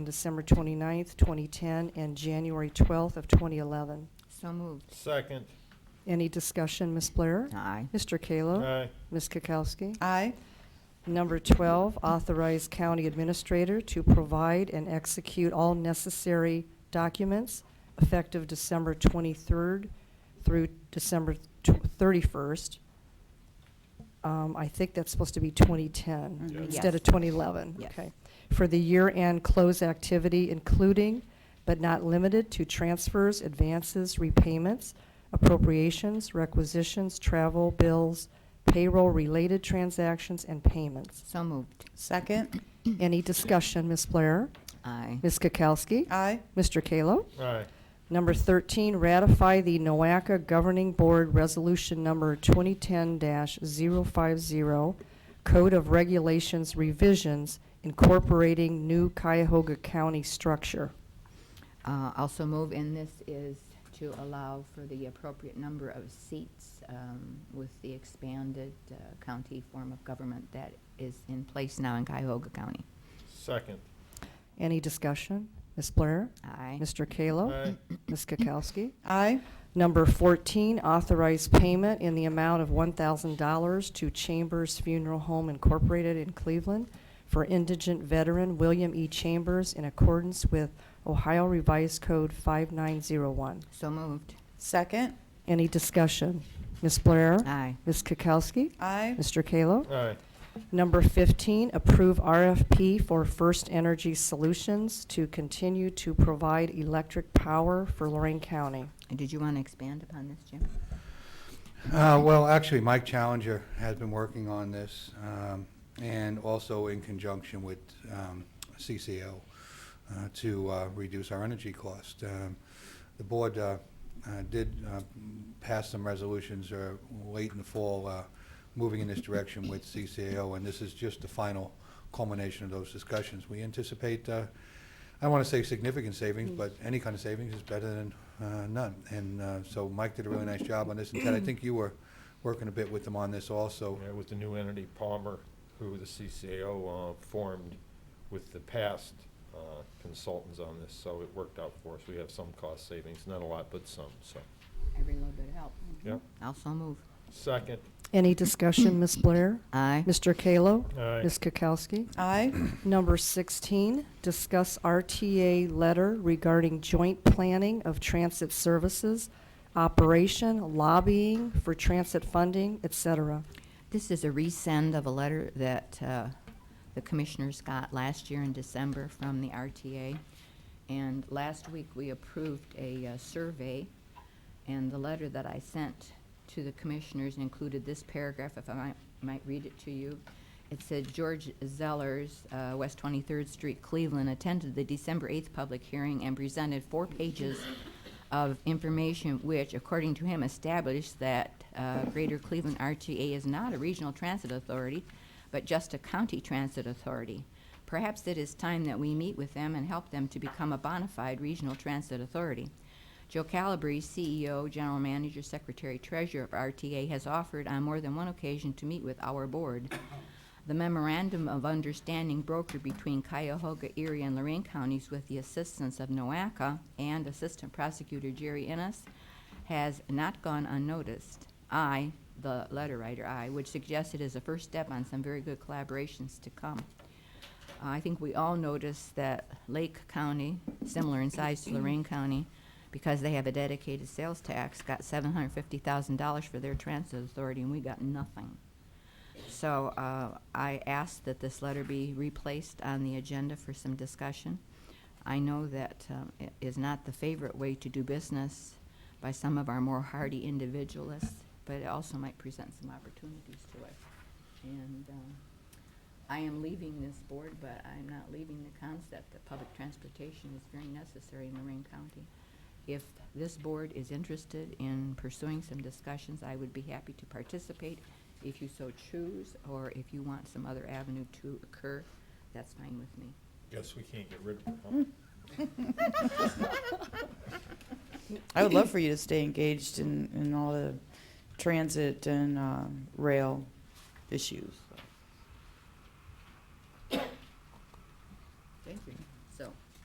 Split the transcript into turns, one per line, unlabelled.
December 29th, 2010, and January 12th of 2011.
So moved.
Second.
Any discussion, Ms. Blair?
Aye.
Mr. Kallo?
Aye.
Ms. Kukowski?
Aye.
Number 12, authorize county administrator to provide and execute all necessary documents effective December 23rd through December tw- 31st. Um, I think that's supposed to be
Mm-hmm.
2010
Mhm.
instead
Yes.
of 2011.
Yes.
Okay. For the year-end close activity, including but not limited to transfers, advances, repayments, appropriations, requisitions, travel, bills, payroll-related transactions, and payments.
So moved.
Second.
Any discussion, Ms. Blair?
Aye.
Ms. Kukowski?
Aye.
Mr. Kallo?
Aye.
Number 13, ratify the NOACA Governing Board Resolution Number 2010-050, Code of Regulations revisions incorporating new Cuyahoga County structure.
Uh, Also move, and this is to allow for the appropriate number of seats um, with the expanded uh, county form of government that is in place now in Cuyahoga County.
Second.
Any discussion? Ms. Blair?
Aye.
Mr. Kallo?
Aye.
Ms. Kukowski?
Aye.
Number 14, authorize payment in the amount of $1,000 to Chambers Funeral Home Incorporated in Cleveland for indigent veteran William E. Chambers in accordance with Ohio Revised Code 5901.
So moved.
Second.
Any discussion? Ms. Blair?
Aye.
Ms. Kukowski?
Aye.
Mr. Kallo?
Aye.
Number 15, approve RFP for First Energy Solutions to continue to provide electric power for Lorraine County.
And Did you want to expand upon this, Jim?
Uh, Well, actually, Mike Challenger has been working on this, um, and also in conjunction with um, CCO, uh, to uh, reduce our energy cost. Um, The board uh, uh, did uh, pass some resolutions uh, late in the fall, uh, moving in this direction with CCAO, and this is just the final culmination of those discussions. We anticipate uh, I don't want to say significant savings, but any kind of savings is better than uh, none. And uh, so Mike did a really nice job on this, and Ted, I think you were working a bit with them on this also.
Yeah, with the new entity Palmer, who the CCAO uh, formed with the past uh, consultants on this, so it worked out for us. We have some cost savings, not a lot, but some, so.
Every little bit of help.
Yep.
Also move.
Second.
Any discussion, Ms. Blair?
Aye.
Mr. Kallo?
Aye.
Ms. Kukowski?
Aye.
Number 16, discuss RTA letter regarding joint planning of transit services, operation, lobbying for transit funding, et cetera.
This is a resend of a letter that uh, the commissioners got last year in December from the RTA. And last week, we approved a uh, survey, and the letter that I sent to the commissioners included this paragraph, if I might- might read it to you. It said, "George Zellers, uh, West 23rd Street, Cleveland, attended the December 8th public hearing and presented four pages of information which, according to him, established that uh, Greater Cleveland RTA is not a regional transit authority, but just a county transit authority. Perhaps it is time that we meet with them and help them to become a bona fide regional transit authority. Joe Calabrese, CEO, General Manager, Secretary, Treasurer of RTA, has offered on more than one occasion to meet with our board. The memorandum of understanding brokered between Cuyahoga, Erie, and Lorraine counties with the assistance of NOACA and Assistant Prosecutor Jerry Ennis has not gone unnoticed. I, the letter writer, I, would suggest it is a first step on some very good collaborations to come. I think we all noticed that Lake County, similar in size to Lorraine County, because they have a dedicated sales tax, got seven hundred fifty thousand dollars for their transit authority, and we got nothing. So uh, I ask that this letter be replaced on the agenda for some discussion. I know that um, it is not the favorite way to do business by some of our more hardy individualists, but it also might present some opportunities to us. And um, I am leaving this board, but I'm not leaving the concept that public transportation is very necessary in Lorraine County. If this board is interested in pursuing some discussions, I would be happy to participate if you so choose, or if you want some other avenue to occur, that's fine with me.
Guess we can't get rid of her, huh?
I would love for you to stay engaged in, in all the transit and um, rail uh, issues.